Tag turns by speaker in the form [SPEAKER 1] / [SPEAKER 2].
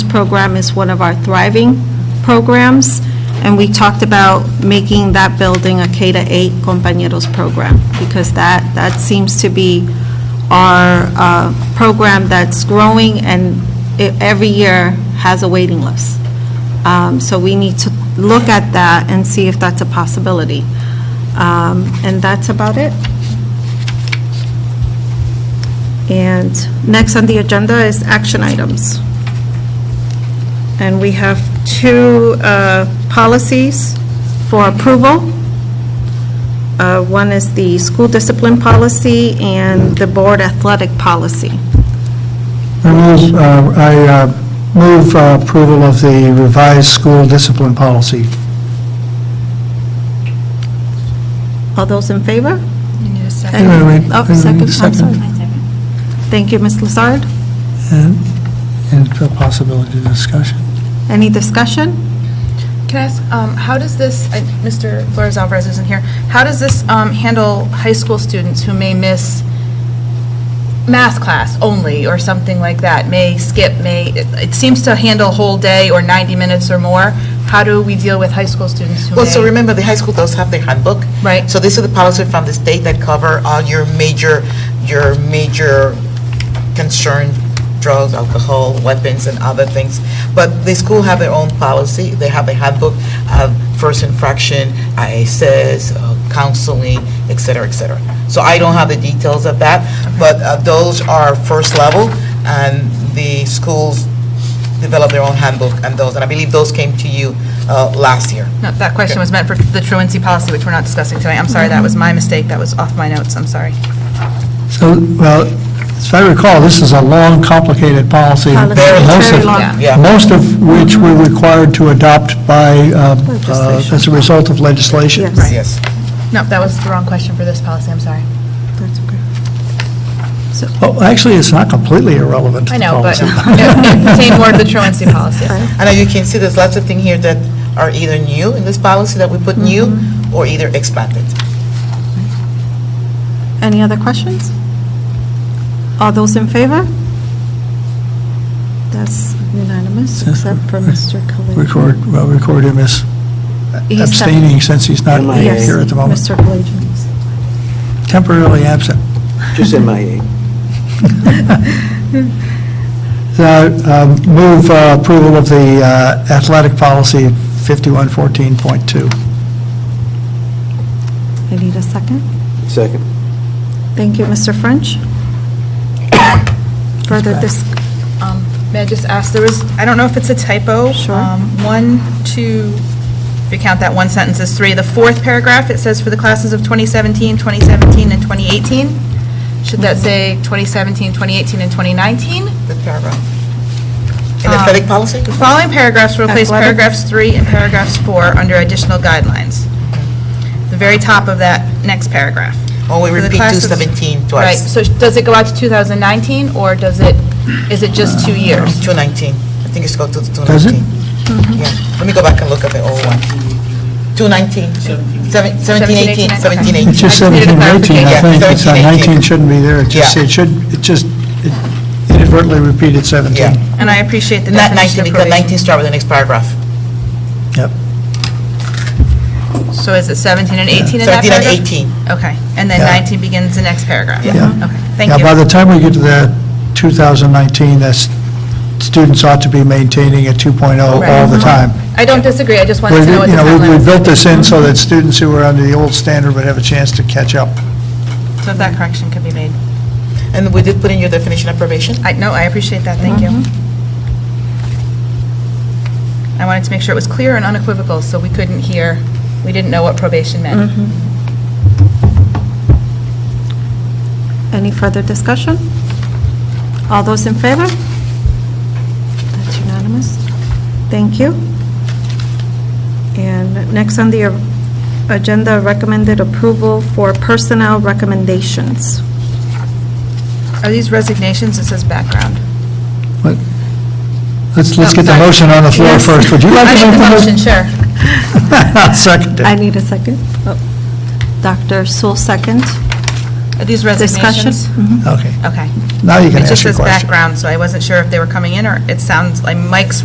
[SPEAKER 1] program is one of our thriving programs, and we talked about making that building a K to 8 compañeros program, because that, that seems to be our uh, program that's growing, and it- every year has a waiting list. Um, So we need to look at that and see if that's a possibility. Um, And that's about it. And next on the agenda is action items. And we have two uh, policies for approval. Uh, One is the school discipline policy and the board athletic policy.
[SPEAKER 2] I move, uh, I uh, move uh, approval of the revised school discipline policy.
[SPEAKER 1] All those in favor?
[SPEAKER 2] Wait, wait, wait.
[SPEAKER 1] Oh,
[SPEAKER 2] Wait, wait,
[SPEAKER 1] second, I'm sorry. Thank you, Ms. Lazard.
[SPEAKER 2] And and the possibility of discussion.
[SPEAKER 1] Any discussion?
[SPEAKER 3] Can I ask, um, how does this, I- Mr. Flores Alvarez isn't here, how does this um, handle high school students who may miss math class only, or something like that, may skip, may, it- it seems to handle whole day or 90 minutes or more. How do we deal with high school students who may?
[SPEAKER 4] Well, so remember, the high school does have their handbook.
[SPEAKER 3] Right.
[SPEAKER 4] So this is the policy from the state that cover all your major, your major concern, drugs, alcohol, weapons, and other things. But the school have their own policy. They have a handbook of first infraction, ISS, uh, counseling, et cetera, et cetera. So I don't have the details of that, but uh, those are first level, and the schools develop their own handbook and those, and I believe those came to you uh, last year.
[SPEAKER 3] No, That question was meant for the truancy policy, which we're not discussing tonight. I'm sorry, that was my mistake, that was off my notes, I'm sorry.
[SPEAKER 2] So, well, as I recall, this is a long, complicated policy.
[SPEAKER 1] Policy,
[SPEAKER 4] Very
[SPEAKER 2] most
[SPEAKER 1] very
[SPEAKER 2] of-
[SPEAKER 1] long.
[SPEAKER 3] Yeah.
[SPEAKER 4] Yeah.
[SPEAKER 2] Most of which we're required to adopt by, uh, uh,
[SPEAKER 1] Legislation.
[SPEAKER 2] as a result of legislation.
[SPEAKER 1] Yes.
[SPEAKER 4] Yes.
[SPEAKER 3] No, that was the wrong question for this policy, I'm sorry.
[SPEAKER 1] That's okay.
[SPEAKER 2] Well, Oh, actually, it's not completely irrelevant to
[SPEAKER 3] I
[SPEAKER 2] the
[SPEAKER 3] know, but
[SPEAKER 2] policy.
[SPEAKER 3] it same word, the truancy policy.
[SPEAKER 4] And as you can see, there's lots of things here that are either new in this policy that we put new
[SPEAKER 3] Mm-hmm.
[SPEAKER 4] or either expanded.
[SPEAKER 1] Any other questions? All those in favor? That's unanimous, except for Mr. Kalijian.
[SPEAKER 2] Record, well, record him as
[SPEAKER 1] He's
[SPEAKER 2] abstaining since he's not
[SPEAKER 1] Yes,
[SPEAKER 2] here at the moment.
[SPEAKER 1] Mr. Kalijian.
[SPEAKER 2] Temporarily absent.
[SPEAKER 5] Just E. MIA.
[SPEAKER 2] Uh, um, Move uh, approval of the uh, athletic policy 5114.2.
[SPEAKER 1] I need a second.
[SPEAKER 5] Second.
[SPEAKER 1] Thank you, Mr. French. Further dis,
[SPEAKER 3] Um, May I just ask, there was, I don't know if it's a typo.
[SPEAKER 1] Sure.
[SPEAKER 3] Um, One, two, if you count that one sentence as three, the fourth paragraph, it says for the classes of 2017, 2017, and 2018. Should that say 2017, 2018, and 2019?
[SPEAKER 4] The paragraph. In
[SPEAKER 3] Uh,
[SPEAKER 4] the athletic policy?
[SPEAKER 3] The following paragraphs will replace
[SPEAKER 1] Athletic.
[SPEAKER 3] paragraphs three and paragraphs four under additional guidelines. The very top of that next paragraph.
[SPEAKER 4] Or we
[SPEAKER 3] For the
[SPEAKER 4] repeat
[SPEAKER 3] classes-
[SPEAKER 4] 217
[SPEAKER 3] Right,
[SPEAKER 4] twice?
[SPEAKER 3] so does it go out to 2019, or does it, is it just two years?
[SPEAKER 4] 219. I think it's called 219.
[SPEAKER 2] Does it?
[SPEAKER 3] Mm-hmm.
[SPEAKER 4] Yeah. Let me go back and look at the old one. 219. Seven- 17, 18, 17, 18.
[SPEAKER 2] It's just
[SPEAKER 3] I just needed
[SPEAKER 2] 17, 18, I
[SPEAKER 4] clarification.
[SPEAKER 2] think. It's uh,
[SPEAKER 4] 17, 18.
[SPEAKER 2] 19 shouldn't be there. It just,
[SPEAKER 4] Yeah.
[SPEAKER 2] it should, it just it inadvertently repeated 17.
[SPEAKER 4] Yeah.
[SPEAKER 3] And I appreciate the
[SPEAKER 4] Not
[SPEAKER 3] definition
[SPEAKER 4] 19,
[SPEAKER 3] of
[SPEAKER 4] because
[SPEAKER 3] probation.
[SPEAKER 4] 19 start with the next paragraph.
[SPEAKER 2] Yep.
[SPEAKER 3] So is it 17 and 18 in that
[SPEAKER 4] 17 and
[SPEAKER 3] paragraph?
[SPEAKER 4] 18.
[SPEAKER 3] Okay, and then
[SPEAKER 2] Yeah.
[SPEAKER 3] 19 begins the next paragraph?
[SPEAKER 2] Yeah.
[SPEAKER 3] Okay, thank
[SPEAKER 2] Now, by
[SPEAKER 3] you.
[SPEAKER 2] the time we get to the 2019, that's, students ought to be maintaining a 2.0 all the
[SPEAKER 3] Right. Uh-huh.
[SPEAKER 2] time.
[SPEAKER 3] I don't disagree, I just wanted
[SPEAKER 2] We-
[SPEAKER 3] to know what the
[SPEAKER 2] You know, we-
[SPEAKER 3] timeline
[SPEAKER 2] we
[SPEAKER 3] was.
[SPEAKER 2] built this in so that students who were under the old standard would have a chance to catch up.
[SPEAKER 3] So if that correction could be made.
[SPEAKER 4] And we did put in your definition of probation?
[SPEAKER 3] I, no, I appreciate that, thank you. I wanted to make sure it was clear and unequivocal, so we couldn't hear, we didn't know what probation meant.
[SPEAKER 1] any further discussion? All those in favor? That's unanimous. Thank you. And next on the agenda, recommended approval for personnel recommendations.
[SPEAKER 3] Are these resignations? It says background.
[SPEAKER 2] But Let's, let's
[SPEAKER 3] Oh,
[SPEAKER 2] get the
[SPEAKER 3] sorry.
[SPEAKER 2] motion on the floor
[SPEAKER 3] Yes.
[SPEAKER 2] first. Would you like
[SPEAKER 3] I
[SPEAKER 2] to
[SPEAKER 3] make the motion, sure.
[SPEAKER 2] I'll second
[SPEAKER 1] I
[SPEAKER 2] it.
[SPEAKER 1] need a second. Oh, Dr. Sewell, second.
[SPEAKER 3] Are these
[SPEAKER 1] Discussion?
[SPEAKER 3] resignations?
[SPEAKER 2] Okay,
[SPEAKER 3] Okay.
[SPEAKER 2] now you can
[SPEAKER 3] It just
[SPEAKER 2] ask your
[SPEAKER 3] says
[SPEAKER 2] question.
[SPEAKER 3] background, so I wasn't sure if they were coming in, or it sounds like Mike's